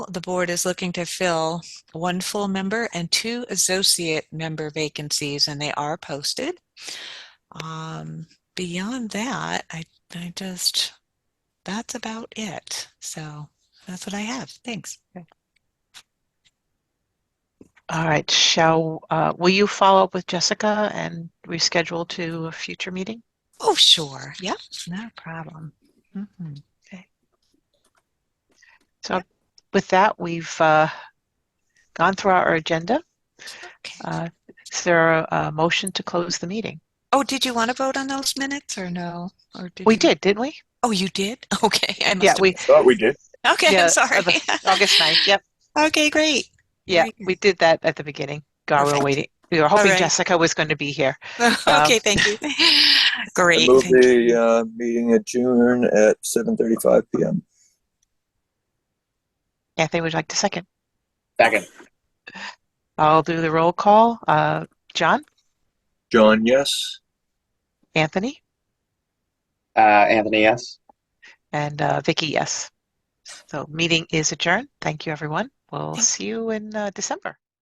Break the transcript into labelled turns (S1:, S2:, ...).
S1: the board is looking to fill one full member and two associate member vacancies, and they are posted. Um, beyond that, I, I just, that's about it. So that's what I have. Thanks.
S2: All right, shall, uh, will you follow up with Jessica and reschedule to a future meeting?
S1: Oh, sure. Yep. No problem.
S2: Mm-hmm.
S1: Mhm.
S2: With that, we've uh, gone through our agenda.
S1: Okay.
S2: Uh, Is there a- a motion to close the meeting?
S1: Oh, did you want to vote on those minutes or no? Or did
S2: We
S1: you-
S2: did, didn't we?
S1: Oh, you did? Okay. I must
S2: Yeah,
S1: have-
S2: we,
S3: Thought Oh, we did.
S1: Okay,
S2: yeah,
S1: I'm
S2: of
S1: sorry.
S2: August 9th, yep.
S1: Okay, great.
S2: Yeah,
S1: Right.
S2: we did that at the beginning. God, we were
S1: Perfect.
S2: waiting. We were hoping
S1: right.
S2: Jessica was going to be here.
S1: Okay, thank you.
S3: I
S1: Great.
S3: move
S1: thank you.
S3: the uh, meeting adjourn at 7:35 PM.
S2: Anthony, would you like to second?
S4: Second.
S2: I'll do the roll call. Uh, John,
S3: John, yes?
S2: Anthony,
S4: Uh, Anthony, yes.
S2: and uh, Vicky, yes. So meeting is adjourned. Thank you, everyone. We'll
S1: Thank-
S2: see you in uh, December.